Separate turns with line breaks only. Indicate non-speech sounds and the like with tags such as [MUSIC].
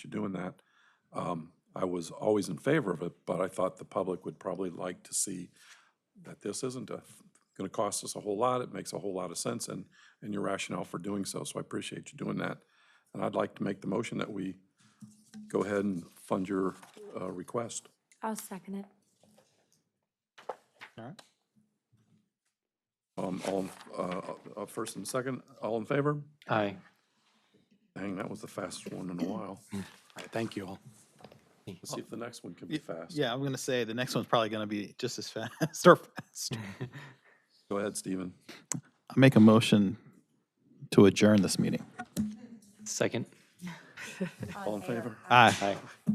to doing that. Um, I was always in favor of it, but I thought the public would probably like to see that this isn't going to cost us a whole lot. It makes a whole lot of sense and, and your rationale for doing so. So I appreciate you doing that. And I'd like to make the motion that we go ahead and fund your uh, request.
I'll second it.
All right.
Um, All, uh, uh, first and second, all in favor?
Aye.
Dang, that was the fastest one in a while.
All right, thank you all.
Let's see if the next one can be fast.
Yeah, I'm gonna say the next one's probably gonna be just as fast [LAUGHS] or faster.
Go ahead, Stephen.
I make a motion to adjourn this meeting.
Second.
All in favor?
Aye.